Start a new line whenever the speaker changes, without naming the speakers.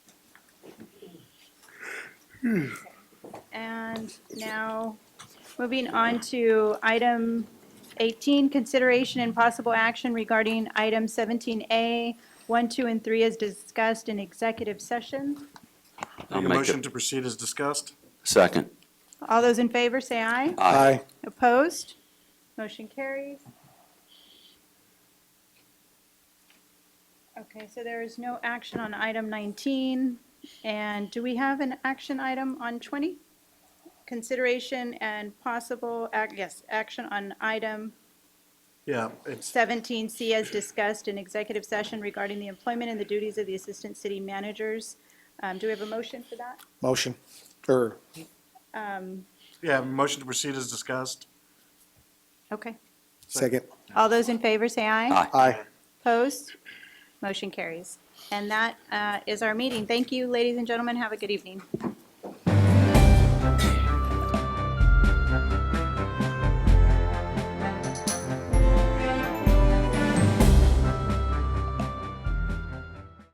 And now, moving on to item 18, consideration and possible action regarding item 17A, 1, 2, and 3 as discussed in executive session.
I'll
Make a
make
motion
it.
to proceed as discussed?
Second.
All those in favor, say aye.
Aye.
Opposed? Motion carries. Okay, so there is no action on item 19. And do we have an action item on 20? Consideration and possible, ac- yes, action on item
Yeah, it's,
17C as discussed in executive session regarding the employment and the duties of the assistant city managers. Um, Do we have a motion for that?
Motion, or,
Um,
yeah, motion to proceed as discussed?
Okay.
second,
All those in favor, say
Aye.
aye.
Opposed? Motion carries. And that uh, is our meeting. Thank you, ladies and gentlemen. Have a good evening.